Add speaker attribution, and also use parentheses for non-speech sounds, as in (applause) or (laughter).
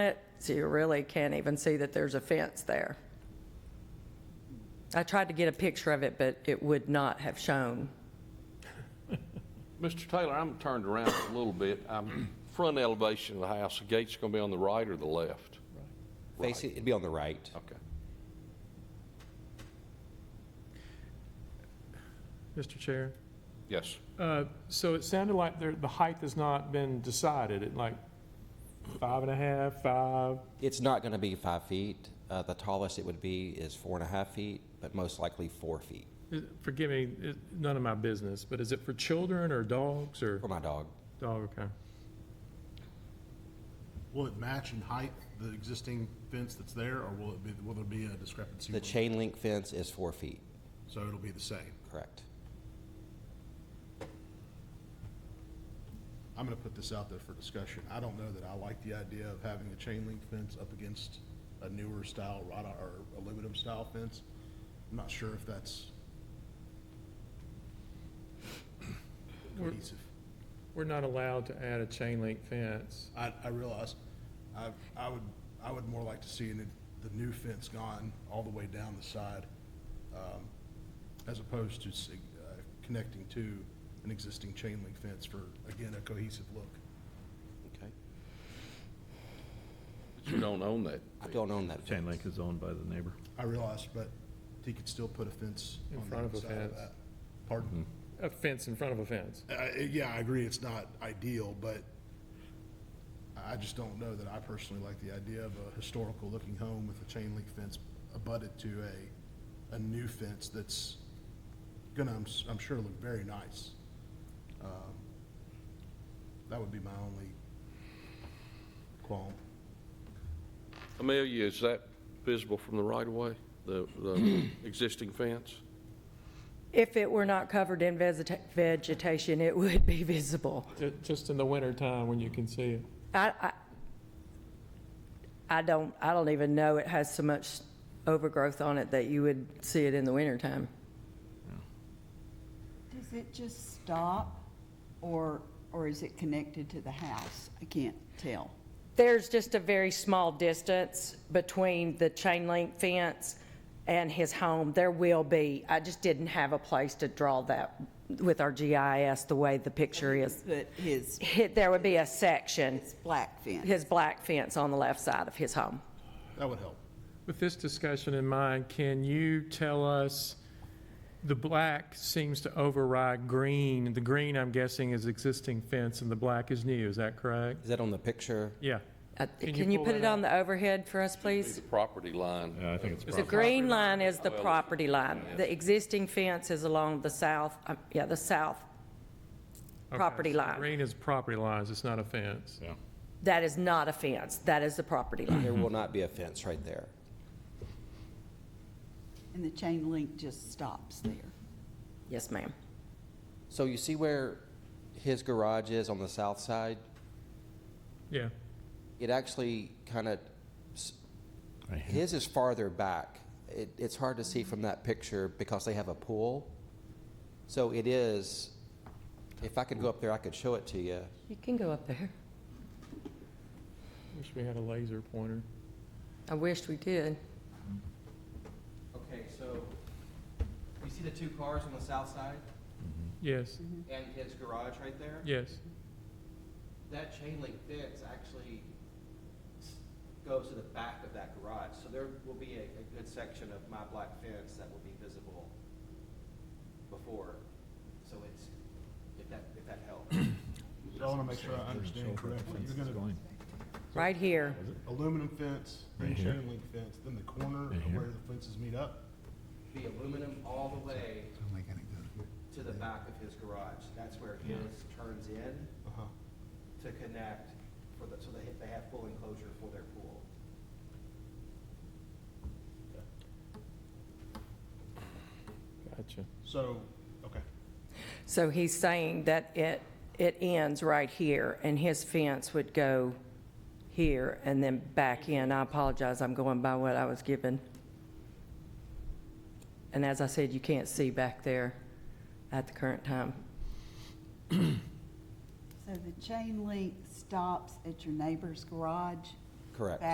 Speaker 1: it, so you really can't even see that there's a fence there. I tried to get a picture of it, but it would not have shown.
Speaker 2: Mr. Taylor, I'm turned around a little bit. I'm front elevation of the house. The gate's going to be on the right or the left?
Speaker 3: Face it, it'd be on the right.
Speaker 2: Okay.
Speaker 4: Mr. Chair.
Speaker 2: Yes.
Speaker 4: Uh, So it sounded like there, the height has not been decided, at like five and a half, five,
Speaker 3: It's not going to be five feet. Uh, the tallest it would be is four and a half feet, but most likely four feet
Speaker 4: Uh, forgive me, it- none of my business, but is it for children or dogs or?
Speaker 3: for my dog.
Speaker 4: Dog, okay.
Speaker 5: Will it match in height the existing fence that's there, or will it be, will there be a discrepancy?
Speaker 3: The chain link fence is four feet,
Speaker 5: So it'll be the same.
Speaker 3: correct?
Speaker 5: I'm gonna put this out there for discussion. I don't know that I like the idea of having a chain link fence up against a newer style wrought i- or aluminum style fence. I'm not sure if that's cohesive.
Speaker 4: We're not allowed to add a chain link fence.
Speaker 5: I, I realize, I, I would, I would more like to see the the new fence gone all the way down the side, um, as opposed to s- uh, connecting to an existing chain link fence for, again, a cohesive look.
Speaker 3: Okay.
Speaker 2: But you don't own that.
Speaker 3: I don't own that
Speaker 6: Chain
Speaker 3: fence.
Speaker 6: link is owned by the neighbor.
Speaker 5: I realize, but he could still put a fence
Speaker 4: In
Speaker 5: on the
Speaker 4: front of a
Speaker 5: outside
Speaker 4: fence.
Speaker 5: that. Pardon?
Speaker 4: A fence in front of a fence.
Speaker 5: Uh, yeah, I agree, it's not ideal, but I I just don't know that I personally like the idea of a historical-looking home with a chain link fence abutted to a, a new fence that's gonna, I'm, s- I'm sure, look very nice. Um, That would be my only qualm.
Speaker 2: Amelia, is that visible from the right of way? The, the existing fence?
Speaker 1: If it were not covered in vegeta- vegetation, it (laughs) would be visible.
Speaker 4: Ju- Just in the winter time when you can see it.
Speaker 1: I, I, I don't, I don't even know it has so much overgrowth on it that you would see it in the wintertime.
Speaker 7: Does it just stop, or, or is it connected to the house? I can't tell.
Speaker 1: There's just a very small distance between the chain link fence and his home. There will be, I just didn't have a place to draw that with our GIS the way the picture is.
Speaker 7: But his,
Speaker 1: Hit- There would be a section,
Speaker 7: his black fence,
Speaker 1: his black fence on the left side of his home.
Speaker 5: That would help.
Speaker 4: With this discussion in mind, can you tell us, the black seems to override green. The green, I'm guessing, is existing fence and the black is new. Is that correct?
Speaker 3: Is that on the picture?
Speaker 4: Yeah.
Speaker 1: Uh,
Speaker 4: Can you
Speaker 1: Can you
Speaker 4: pull
Speaker 1: put
Speaker 4: that
Speaker 1: it on the overhead for us, please?
Speaker 2: The property line?
Speaker 6: Yeah, Uh, I think it's
Speaker 1: The
Speaker 6: probably,
Speaker 1: green line is
Speaker 4: Oh,
Speaker 1: the property line. The existing fence is along the south, um, yeah, the south
Speaker 4: Okay,
Speaker 1: property
Speaker 4: so
Speaker 1: line.
Speaker 4: Green is property lines, it's not a fence.
Speaker 6: yeah.
Speaker 1: That is not a fence, that is the property line.
Speaker 3: There will not be a fence right there.
Speaker 7: and the chain link just stops there.
Speaker 4: Mm-hmm.
Speaker 1: Yes, ma'am.
Speaker 3: So you see where his garage is on the south side?
Speaker 4: Yeah.
Speaker 3: It actually kind of, his is farther back. It, it's hard to see from that picture because they have a pool. So it is, if I could go up there, I could show it to you.
Speaker 1: You can go up there.
Speaker 4: Wish we had a laser pointer.
Speaker 1: I wished we did.
Speaker 3: Okay, so you see the two cars on the south side
Speaker 4: Yes,
Speaker 1: Mm-hmm.
Speaker 3: and his garage right there?
Speaker 4: yes.
Speaker 3: That chain link fence actually goes to the back of that garage. So there will be a, a good section of my black fence that will be visible before. So it's, if that, if that helps. (coughs)
Speaker 5: So I wanna make sure I understand correctly. You're gonna
Speaker 1: Right here.
Speaker 5: aluminum fence, then
Speaker 6: Right here.
Speaker 5: chain link fence, then the corner
Speaker 6: Right
Speaker 5: of
Speaker 6: here.
Speaker 5: where the fences meet up.
Speaker 8: the aluminum all the way to the back of his garage. That's where his turns in
Speaker 5: Uh-huh.
Speaker 8: to connect for the, so they, they have full enclosure for their pool.
Speaker 4: Gotcha.
Speaker 5: So, okay.
Speaker 1: So he's saying that it, it ends right here, and his fence would go here and then back in. I apologize, I'm going by what I was given. And as I said, you can't see back there at the current time.
Speaker 7: So the chain link stops at your neighbor's garage,
Speaker 3: Correct.